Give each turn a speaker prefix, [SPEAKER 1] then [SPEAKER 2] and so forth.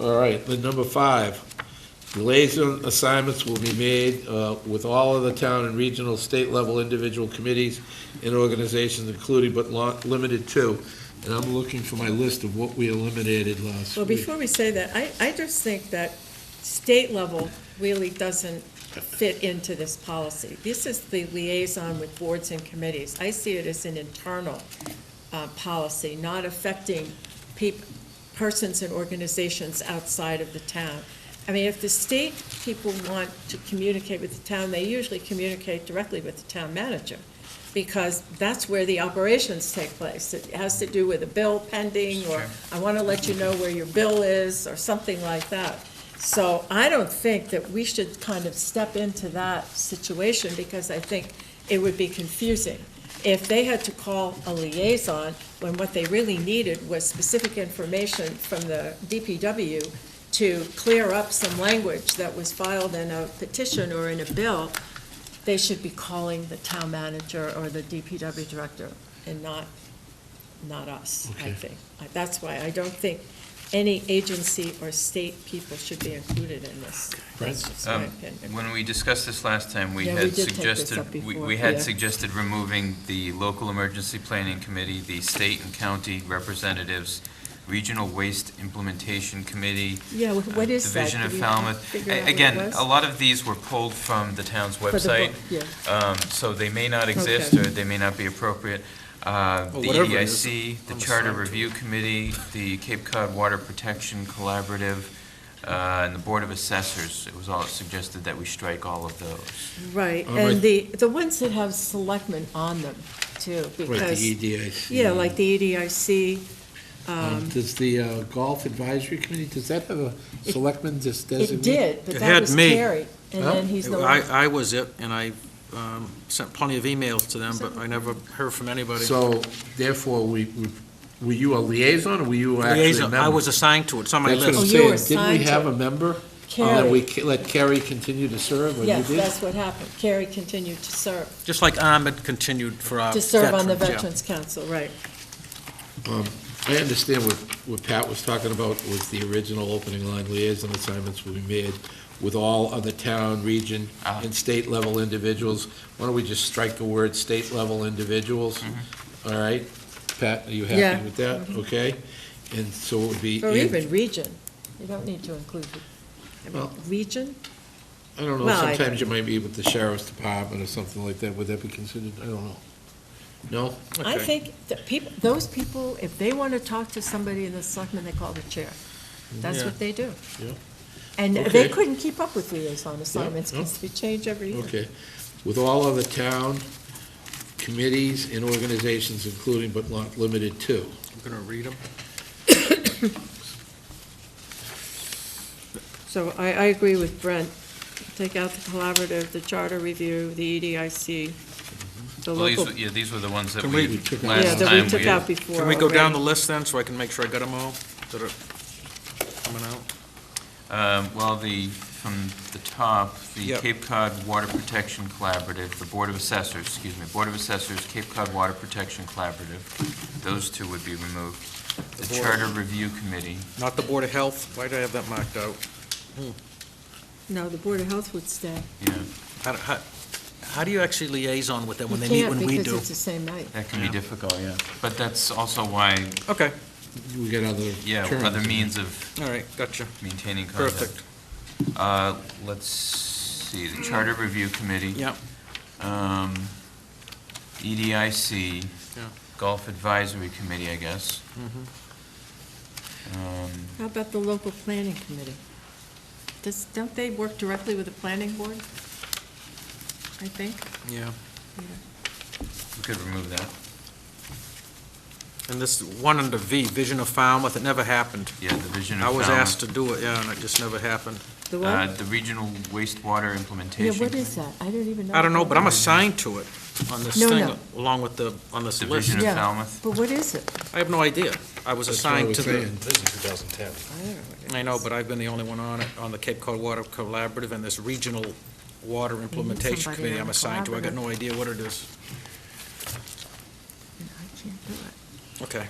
[SPEAKER 1] All right, then number five, delays on assignments will be made uh, with all of the town and regional, state level individual committees and organizations including but not limited to. And I'm looking for my list of what we eliminated last
[SPEAKER 2] Well,
[SPEAKER 1] week.
[SPEAKER 2] before we say that, I, I just think that state level really doesn't fit into this policy. This is the liaison with boards and committees. I see it as an internal uh, policy, not affecting peop, persons and organizations outside of the town. I mean, if the state people want to communicate with the town, they usually communicate directly with the town manager, because that's where the operations take place. It has to do with a bill pending, or I want to let you know where your bill is, or something like that. So I don't think that we should kind of step into that situation, because I think it would be confusing. If they had to call a liaison, when what they really needed was specific information from the DPW to clear up some language that was filed in a petition or in a bill, they should be calling the town manager or the DPW director and not, not us, I
[SPEAKER 1] Okay.
[SPEAKER 2] think. I- That's why I don't think any agency or state people should be included in this. That's just my
[SPEAKER 3] Um,
[SPEAKER 2] opinion.
[SPEAKER 3] When we discussed this last time, we
[SPEAKER 2] Yeah, we
[SPEAKER 3] had
[SPEAKER 2] did take this up
[SPEAKER 3] suggested, we-
[SPEAKER 2] before,
[SPEAKER 3] we had
[SPEAKER 2] yeah.
[SPEAKER 3] suggested removing the local emergency planning committee, the state and county representatives, regional waste implementation committee.
[SPEAKER 2] Yeah, wh- what
[SPEAKER 3] uh,
[SPEAKER 2] is that?
[SPEAKER 3] Division
[SPEAKER 2] Did
[SPEAKER 3] of
[SPEAKER 2] we have to
[SPEAKER 3] Falmouth.
[SPEAKER 2] figure out
[SPEAKER 3] A-
[SPEAKER 2] what it
[SPEAKER 3] Again,
[SPEAKER 2] was?
[SPEAKER 3] a lot of these were pulled from the town's
[SPEAKER 2] For the
[SPEAKER 3] website,
[SPEAKER 2] book, Yeah,
[SPEAKER 3] um, so they may not exist
[SPEAKER 2] Okay.
[SPEAKER 3] or they may not be appropriate. Uh,
[SPEAKER 1] Well,
[SPEAKER 3] The
[SPEAKER 1] whatever it is,
[SPEAKER 3] EDIC, the
[SPEAKER 1] I'm
[SPEAKER 3] Charter
[SPEAKER 1] assigned to
[SPEAKER 3] Review Committee, the Cape Cod Water Protection Collaborative, uh, and the Board of Assessors, it was all suggested that we strike all of those.
[SPEAKER 2] right.
[SPEAKER 1] All right.
[SPEAKER 2] And the, the ones that have selectmen on them too,
[SPEAKER 1] Right,
[SPEAKER 2] because,
[SPEAKER 1] the E EDIC.
[SPEAKER 2] yeah, like the E EDIC,
[SPEAKER 1] Um,
[SPEAKER 2] um,
[SPEAKER 1] Does the uh, Golf Advisory Committee, does that have a
[SPEAKER 2] It-
[SPEAKER 1] selectman just
[SPEAKER 2] it
[SPEAKER 1] designate?
[SPEAKER 2] did, but
[SPEAKER 4] It
[SPEAKER 2] that
[SPEAKER 4] had
[SPEAKER 2] was
[SPEAKER 4] me.
[SPEAKER 2] Terry. And
[SPEAKER 1] Huh?
[SPEAKER 2] then he's no
[SPEAKER 4] I,
[SPEAKER 2] longer.
[SPEAKER 4] I was it, and I um, sent plenty of emails to them, but I never heard from anybody.
[SPEAKER 1] So therefore, we, we- were you a liaison or were you actually a
[SPEAKER 4] Liaison,
[SPEAKER 1] member?
[SPEAKER 4] I was assigned to it, it's on my
[SPEAKER 1] That's what I'm
[SPEAKER 2] Oh,
[SPEAKER 4] list.
[SPEAKER 2] you were
[SPEAKER 1] saying. Didn't
[SPEAKER 2] assigned
[SPEAKER 1] we
[SPEAKER 2] to-
[SPEAKER 1] have a member? Oh, And then
[SPEAKER 2] Carrie.
[SPEAKER 1] we ca- let Kerry continue to serve, or you
[SPEAKER 2] Yes,
[SPEAKER 1] did?
[SPEAKER 2] that's what happened. Carrie continued to serve,
[SPEAKER 4] Just like Ahmed continued for our
[SPEAKER 2] to
[SPEAKER 4] Uh, veterans.
[SPEAKER 2] serve on the
[SPEAKER 4] yeah.
[SPEAKER 2] Veterans Council, right.
[SPEAKER 1] I understand what, what Pat was talking about was the original opening line liaison assignments will be made with all other town, region,
[SPEAKER 3] Ah.
[SPEAKER 1] and state level individuals. Why don't we just strike the word state level individuals? All right? Pat, are you
[SPEAKER 2] Yeah. Mm-hmm.
[SPEAKER 1] happy with that? Okay? And so it would be.
[SPEAKER 2] Or
[SPEAKER 1] in-
[SPEAKER 2] even region. You don't need to include, the- I mean,
[SPEAKER 1] Well-
[SPEAKER 2] region?
[SPEAKER 1] I don't know,
[SPEAKER 2] Well, I-
[SPEAKER 1] sometimes you might be with the sheriff's department or something like that. Would that be considered? I don't know. No?
[SPEAKER 2] I
[SPEAKER 1] Okay.
[SPEAKER 2] think that people, those people, if they want to talk to somebody in the selectmen, they call the chair. That's
[SPEAKER 4] Yeah.
[SPEAKER 2] what they do.
[SPEAKER 1] Yeah.
[SPEAKER 2] And they
[SPEAKER 1] Okay.
[SPEAKER 2] couldn't keep up with liaison assignments
[SPEAKER 1] no.
[SPEAKER 2] because they change every year.
[SPEAKER 1] Okay. With all other town committees and organizations, including but not limited to.
[SPEAKER 4] I'm going to read them.
[SPEAKER 2] So I, I agree with Brent. Take out the collaborative, the charter review, the E EDIC, the
[SPEAKER 3] Well, these,
[SPEAKER 2] local,
[SPEAKER 3] were- yeah, these were the ones that
[SPEAKER 4] Can
[SPEAKER 3] we,
[SPEAKER 4] we-
[SPEAKER 1] We took out-
[SPEAKER 2] yeah,
[SPEAKER 3] last
[SPEAKER 2] that
[SPEAKER 3] time
[SPEAKER 2] we
[SPEAKER 3] we
[SPEAKER 2] took out
[SPEAKER 3] had.
[SPEAKER 2] before.
[SPEAKER 4] Can we go down
[SPEAKER 2] already.
[SPEAKER 4] the list then, so I can make sure I got them all that are coming out?
[SPEAKER 3] Um, Well, the, from the top, the
[SPEAKER 4] Yep.
[SPEAKER 3] Cape Cod Water Protection Collaborative, the Board of Assessors, excuse me, Board of Assessors, Cape Cod Water Protection Collaborative, those two would be removed. The
[SPEAKER 4] The board.
[SPEAKER 3] Charter Review Committee,
[SPEAKER 4] Not the Board of Health, why do I have that marked out?
[SPEAKER 2] No, the Board of Health would stay.
[SPEAKER 3] yeah,
[SPEAKER 4] How, do- how, how do you actually liaison with them when
[SPEAKER 2] You
[SPEAKER 4] they meet
[SPEAKER 2] can't
[SPEAKER 4] when we
[SPEAKER 2] Because
[SPEAKER 4] do?
[SPEAKER 2] it's the same night.
[SPEAKER 3] that can be
[SPEAKER 4] Yeah.
[SPEAKER 3] difficult, yeah. But that's also why
[SPEAKER 4] Okay,
[SPEAKER 1] We got other.
[SPEAKER 3] Yeah,
[SPEAKER 1] terms.
[SPEAKER 3] other means of
[SPEAKER 4] all right, gotcha,
[SPEAKER 3] maintaining
[SPEAKER 4] perfect,
[SPEAKER 3] contact. Perfect. Let's see, the Charter Review Committee.
[SPEAKER 4] yeah.
[SPEAKER 3] Um, E EDIC.
[SPEAKER 4] Yeah.
[SPEAKER 3] Golf Advisory Committee, I guess.
[SPEAKER 4] mhm.
[SPEAKER 3] Um,
[SPEAKER 2] How about the local planning committee? Does, don't they work directly with the planning board? I think.
[SPEAKER 4] Yeah.
[SPEAKER 3] We could remove that.
[SPEAKER 4] And this one under V, Vision of Falmouth, it never happened.
[SPEAKER 3] Yeah, the Vision of
[SPEAKER 4] I
[SPEAKER 3] Falmouth.
[SPEAKER 4] was asked to do it, yeah, and it just never happened.
[SPEAKER 2] The
[SPEAKER 3] Uh,
[SPEAKER 2] what?
[SPEAKER 3] The Regional Wastewater
[SPEAKER 2] Yeah,
[SPEAKER 3] Implementation.
[SPEAKER 2] what is that? I don't even know.
[SPEAKER 4] I don't know, but I'm assigned to it on this
[SPEAKER 2] No,
[SPEAKER 4] thing,
[SPEAKER 2] no.
[SPEAKER 4] along with the, on this
[SPEAKER 3] The
[SPEAKER 4] list.
[SPEAKER 3] Vision of
[SPEAKER 2] Yeah.
[SPEAKER 3] Falmouth.
[SPEAKER 2] But what is it?
[SPEAKER 4] I have no idea. I was
[SPEAKER 1] That's what I
[SPEAKER 4] assigned
[SPEAKER 1] was
[SPEAKER 4] to the,
[SPEAKER 1] saying.
[SPEAKER 2] I don't know what it
[SPEAKER 4] I know,
[SPEAKER 2] is.
[SPEAKER 4] but I've been the only one on it, on the Cape Cod Water Collaborative and this Regional Water Implementation
[SPEAKER 2] somebody
[SPEAKER 4] Committee
[SPEAKER 2] on
[SPEAKER 4] I'm
[SPEAKER 2] the
[SPEAKER 4] assigned to. I got
[SPEAKER 2] collaborative.
[SPEAKER 4] no idea what it is.
[SPEAKER 2] I can't do it.
[SPEAKER 4] Okay.